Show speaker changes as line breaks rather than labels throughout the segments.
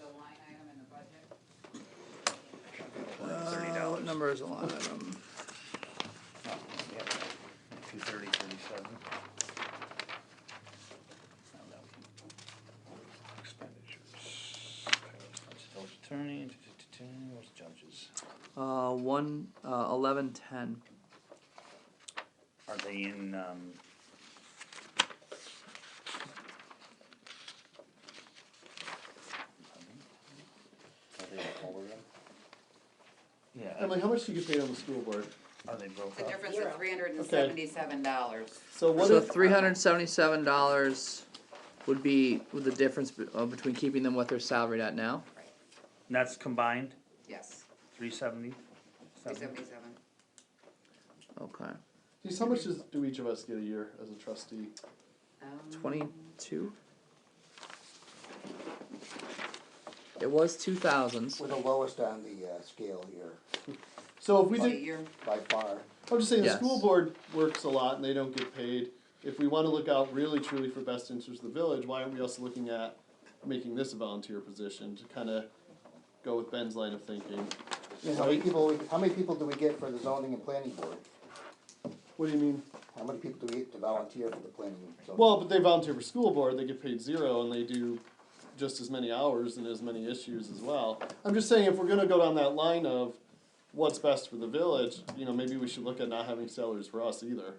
Uh,
Uh, number is the line item?
Two thirty, thirty-seven. Expenditures. Village attorney, what's judges?
Uh, one, uh, eleven, ten.
Are they in, um? Are they in all of them? Yeah,
Emily, how much do you get paid on the school board?
are they broke
It's a
up?
difference of three hundred and seventy-seven dollars.
So what
So
if, uh,
three hundred seventy-seven dollars would be with the difference be- uh, between keeping them what they're salaried at now.
And that's combined,
Yes,
three seventy?
three seventy-seven.
Okay,
geez, how much does, do each of us get a year as a trustee?
Um,
twenty-two. It was two thousands.
We're the lowest on the uh, scale here,
So if we
A
did,
year,
by far.
I'm just saying, the
Yes.
school board works a lot and they don't get paid. If we wanna look out really truly for best interest of the village, why aren't we also looking at making this a volunteer position to kinda go with Ben's line of thinking?
You know, How many people, how many people do we get for the zoning and planning board?
What do you mean?
How many people do we get to volunteer for the planning? and zoning?
Well, but they volunteer for school board, they get paid zero and they do just as many hours and as many issues as well. I'm just saying, if we're gonna go down that line of what's best for the village, you know, maybe we should look at not having salaries for us either.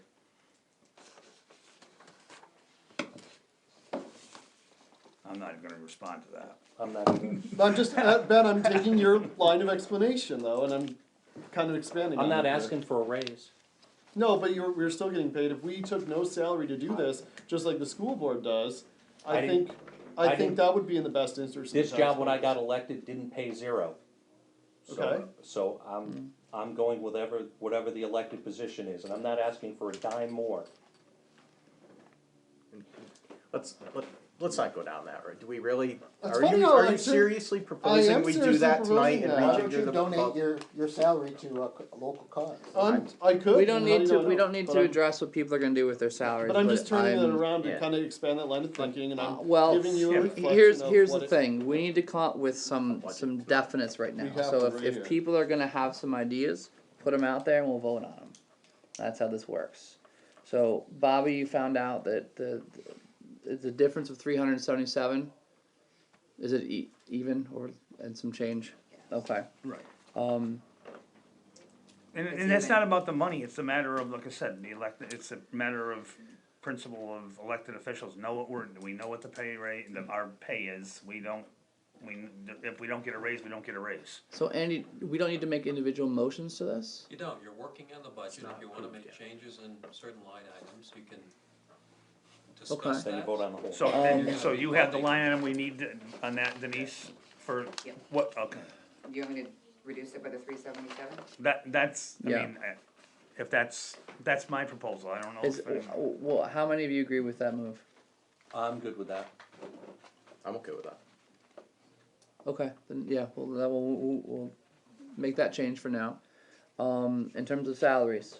I'm not even gonna respond to that.
I'm not even,
I'm just, uh, Ben, I'm taking your line of explanation though, and I'm kind of expanding on
I'm
it
not
here.
asking for a raise.
No, but you're, we're still getting paid, if we took no salary to do this, just like the school board does,
I
I
didn't-
think,
I
I think
didn't-
that would be in the best interest of the
This job, when I
taxpayers.
got elected, didn't pay zero. So-
Okay.
So I'm, I'm going whatever, whatever the elected position is, and I'm not asking for a dime more.
Let's, let, let's not go down that road. Do we really,
That's
are
funny
you,
how
are
I
you
took-
seriously
am
proposing we do
seriously
that tonight
proposing
and
that.
why
Why
reconsider
don't
the?
you donate
vote?
your, your salary to a co- a local cause?
Um, I could.
We don't
how do
need
you
to,
know I
we don't need
But
to
I'm-
address what people are gonna do with their salaries,
But I'm just turning it
I'm-
around to
Yeah.
kind of expand that line of thinking, and
Uh,
I'm
Well,
giving you a
he-
reflection
here's,
of
here's
what
the
it-
thing, we need to come up with some, some definites right now,
We have
so
to
if,
right
if
here.
people are gonna have some ideas, put them out there and we'll vote on them. That's how this works. So Bobby, you found out that the, the, the difference of three hundred and seventy-seven, is it e- even or, and some change? Okay,
Right.
um,
And,
It's
and that's
even.
not about the money, it's a matter of, like I said, the elected, it's a matter of principle of elected officials know what we're, we know what the pay rate, the, our pay is, we don't, we, if we don't get a raise, we don't get a raise.
so Andy, we don't need to make individual motions to this?
You don't, you're working on the budget,
not
if you wanna
approved
make
yet.
changes in certain line items, you can
Okay.
discuss that.
Then you vote on the whole.
So, then- so you have the line item we need on that Denise, for
Yeah.
what, okay,
you want me to reduce it by the three seventy-seven?
that, that's, I
Yeah.
mean, eh, if that's, that's my proposal, I don't know
Is,
if, eh,
well, how many of you agree with that move?
I'm good with that.
I'm okay with that.
Okay, then yeah, well, that will we'll, we'll make that change for now. Um, in terms of salaries,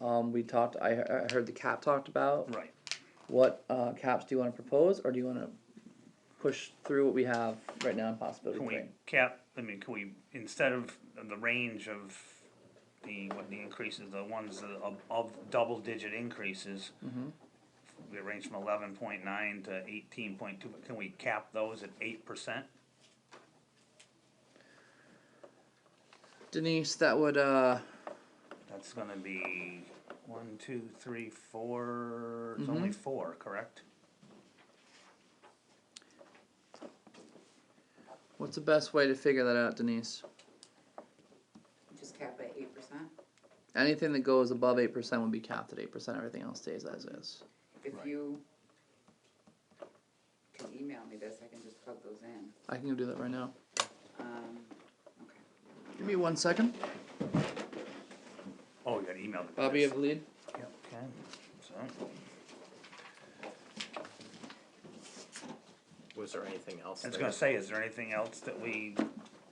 um, we talked. I, he- I heard the cap talked about.
right.
What uh, caps do you want to propose, or do you want to push through what we have right now in possibility?
Can we
three?
cap, I mean, can we, instead of the range of the, what the increases, the ones that of, of double digit increases.
Mm-hmm.
We range from eleven point nine to eighteen point two, can we cap those at eight percent?
Denise, that would uh,
That's gonna be one, two, three, four, it's
Mm-hmm.
only four, correct?
what's the best way to figure that out, Denise?
Just cap it at eight percent?
Anything that goes above eight percent would be capped at eight percent. Everything else stays as is.
If
Right.
you can email me this, I can just plug those in.
I can go do that right now.
Um, okay.
Give me one second.
Oh, you got emailed. it.
Bobby, you have the lead.
Yeah, okay, so,
Was there anything else?
I was
that-
gonna say, is there anything else that we,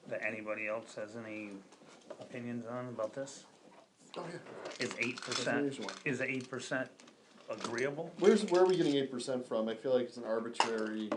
that anybody else has any opinions on about this? Is eight percent,
Unusual.
is eight percent agreeable?
Where's where are we getting eight percent from? I feel like it's an arbitrary